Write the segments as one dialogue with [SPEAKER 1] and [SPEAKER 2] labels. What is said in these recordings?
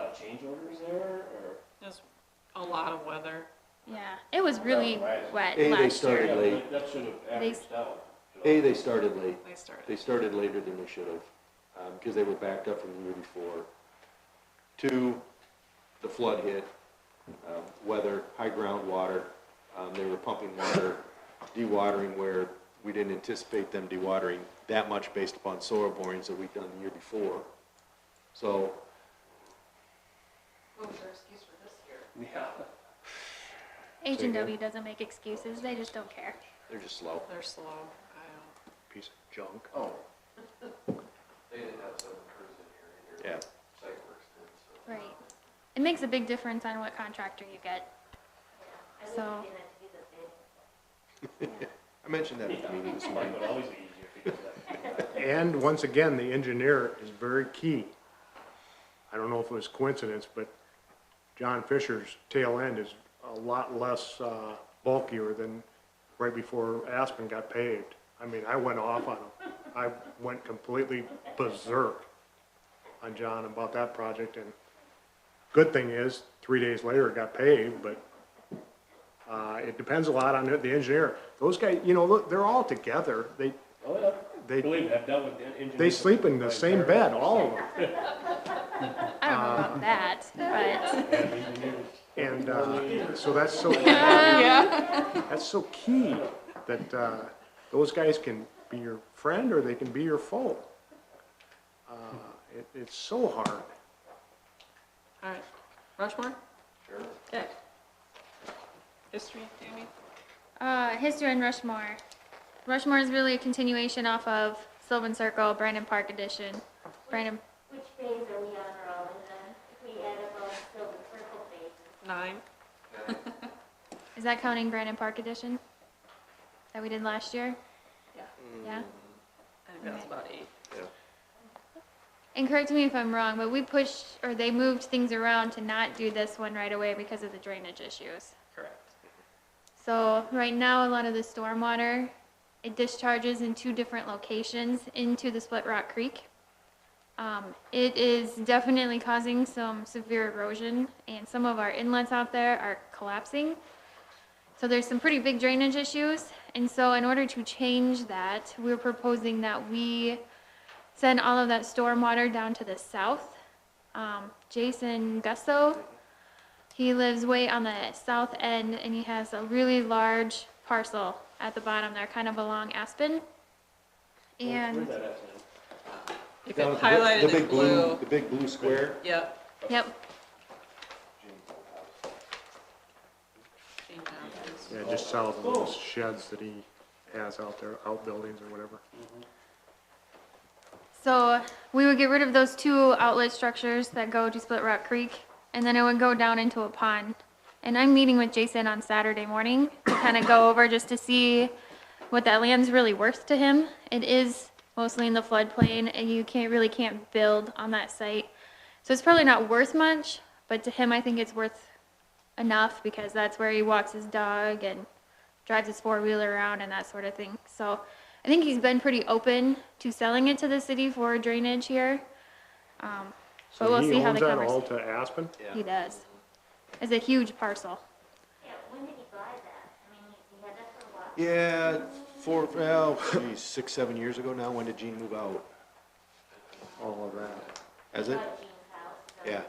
[SPEAKER 1] of change orders there, or?
[SPEAKER 2] Just a lot of weather.
[SPEAKER 3] Yeah, it was really
[SPEAKER 1] Right.
[SPEAKER 3] wet
[SPEAKER 4] Hey, they
[SPEAKER 3] last
[SPEAKER 4] started-
[SPEAKER 3] year.
[SPEAKER 1] Yeah,
[SPEAKER 4] late.
[SPEAKER 1] but That should have averaged out.
[SPEAKER 4] A, they started late.
[SPEAKER 2] They started.
[SPEAKER 4] They started later than they should have, because they were backed up from the year before. Two, the flood hit, um, weather, high groundwater, um, they were pumping water, dewatering where we didn't anticipate them dewatering that much based upon soil borings that we'd done the year before. So,
[SPEAKER 2] What was your excuse for this year?
[SPEAKER 1] Yeah.
[SPEAKER 3] H
[SPEAKER 4] Say
[SPEAKER 3] and
[SPEAKER 4] again?
[SPEAKER 3] W doesn't make excuses, they just don't care.
[SPEAKER 4] they're just slow,
[SPEAKER 2] They're slow. I
[SPEAKER 4] piece of junk.
[SPEAKER 1] Oh,
[SPEAKER 5] They didn't have seven crews in here either.
[SPEAKER 4] Yeah.
[SPEAKER 5] Site works did, so.
[SPEAKER 3] Right. It makes a big difference on what contractor you get. So,
[SPEAKER 4] I mentioned that at the meeting this
[SPEAKER 1] mine
[SPEAKER 4] morning.
[SPEAKER 1] would always be easier if you did that.
[SPEAKER 6] And once again, the engineer is very key. I don't know if it was coincidence, but John Fisher's tail end is a lot less uh, bulkier than right before Aspen got paved. I mean, I went off on him. I went completely berserk on John about that project, and good thing is, three days later, it got paved, but uh, it depends a lot on the engineer. Those guys, you know, look, they're all together. They,
[SPEAKER 1] Oh, yeah.
[SPEAKER 6] They-
[SPEAKER 1] Believe me, I've dealt with engineers.
[SPEAKER 6] they sleep in the same bed, all of them.
[SPEAKER 3] I don't know about that, but,
[SPEAKER 6] And uh, so that's so, that's so key, that uh, those guys can be your friend or they can be your foe. Uh, it- It's so hard.
[SPEAKER 2] don't. All right. Rushmore?
[SPEAKER 1] Sure.
[SPEAKER 2] Good. History, Tammy?
[SPEAKER 3] uh, history and Rushmore. Rushmore is really a continuation off of Sylvan Circle, Brandon Park edition. Brandon,
[SPEAKER 7] Which phase are we on, Roland, then? If we add up all still the circle phases,
[SPEAKER 2] Nine?
[SPEAKER 3] is that counting Brandon Park edition? That we did last year?
[SPEAKER 2] Yeah.
[SPEAKER 3] Yeah?
[SPEAKER 2] I think that's about eight.
[SPEAKER 3] And correct me if I'm wrong, but we pushed, or they moved things around to not do this one right away because of the drainage issues.
[SPEAKER 2] Correct.
[SPEAKER 3] So right now, a lot of the stormwater, it discharges in two different locations into the Split Rock Creek. Um, it is definitely causing some severe erosion and some of our inlets out there are collapsing. So there's some pretty big drainage issues. And so in order to change that, we're proposing that we send all of that stormwater down to the south. Um, Jason Gusso, he lives way on the south end and he has a really large parcel at the bottom there, kind of along Aspen.
[SPEAKER 1] Where's
[SPEAKER 3] And,
[SPEAKER 1] that at, man?
[SPEAKER 2] If
[SPEAKER 4] Down
[SPEAKER 2] it
[SPEAKER 4] at the big- the
[SPEAKER 2] highlighted in
[SPEAKER 4] big
[SPEAKER 2] blue.
[SPEAKER 4] The big blue square.
[SPEAKER 2] Yep.
[SPEAKER 3] yep,
[SPEAKER 2] Jane Johnson's.
[SPEAKER 6] Yeah, just south of those sheds that he has out there, outbuildings or whatever.
[SPEAKER 3] So we would get rid of those two outlet structures that go to Split Rock Creek, and then it would go down into a pond. And I'm meeting with Jason on Saturday morning to kind of go over just to see what that land's really worth to him. It is mostly in the floodplain, and you can't, really can't build on that site. So it's probably not worth much, but to him, I think it's worth enough because that's where he walks his dog and drives his four wheeler around and that sort of thing. So I think he's been pretty open to selling it to the city for drainage here. Um, but we'll see how the
[SPEAKER 6] So he owns
[SPEAKER 3] conversation.
[SPEAKER 6] that all to Aspen?
[SPEAKER 3] He does. It's a huge parcel.
[SPEAKER 7] yeah, when did he buy that? I mean, he he had that for a while.
[SPEAKER 4] Yeah, four, well, geez, six, seven years ago now, when did Gene move out?
[SPEAKER 6] All of that.
[SPEAKER 4] Has it?
[SPEAKER 7] Bought Gene's house, so-
[SPEAKER 4] Yeah. Yep,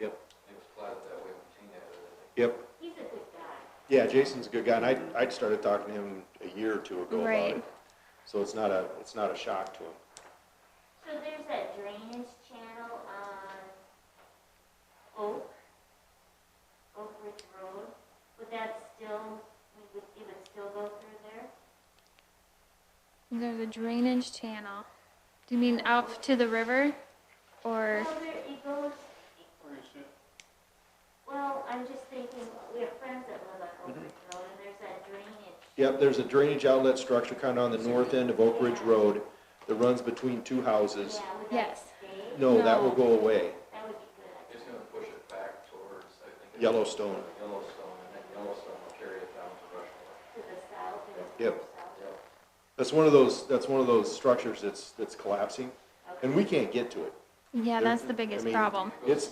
[SPEAKER 5] It was plotted that way when Gene had it, I think.
[SPEAKER 4] yep.
[SPEAKER 7] He's a good guy.
[SPEAKER 4] Yeah, Jason's a good guy, and I, I'd started talking to him a year or two ago about
[SPEAKER 3] Right.
[SPEAKER 4] it. So it's not a, it's not a shock to him.
[SPEAKER 7] So there's that drainage channel on Oak, Oak Ridge Road. Would that still, we would, it would still go through there?
[SPEAKER 3] There's a drainage channel. Do you mean out to the river? Or,
[SPEAKER 7] Well, there, it goes,
[SPEAKER 1] Where you sit?
[SPEAKER 7] well, I'm just thinking, we have friends that live on Oak Ridge Road, and there's that drainage.
[SPEAKER 4] Yep, there's a drainage outlet structure kind of on the north end of Oak Ridge Road that runs between two houses.
[SPEAKER 7] Yeah, would that
[SPEAKER 3] Yes.
[SPEAKER 7] stay?
[SPEAKER 4] No, that will
[SPEAKER 3] No.
[SPEAKER 4] go away.
[SPEAKER 7] That would be good.
[SPEAKER 5] It's gonna push it back towards, I think. it's-
[SPEAKER 4] Yellowstone.
[SPEAKER 5] Yellowstone, and then Yellowstone will carry it down to Rushmore.
[SPEAKER 7] To the south and to
[SPEAKER 4] Yep.
[SPEAKER 7] the south.
[SPEAKER 5] Yep.
[SPEAKER 4] That's one of those, that's one of those structures that's, that's collapsing, and we can't get to it.
[SPEAKER 3] yeah,
[SPEAKER 4] There-
[SPEAKER 3] that's the
[SPEAKER 4] I
[SPEAKER 3] biggest
[SPEAKER 4] mean,
[SPEAKER 3] problem.
[SPEAKER 4] It's,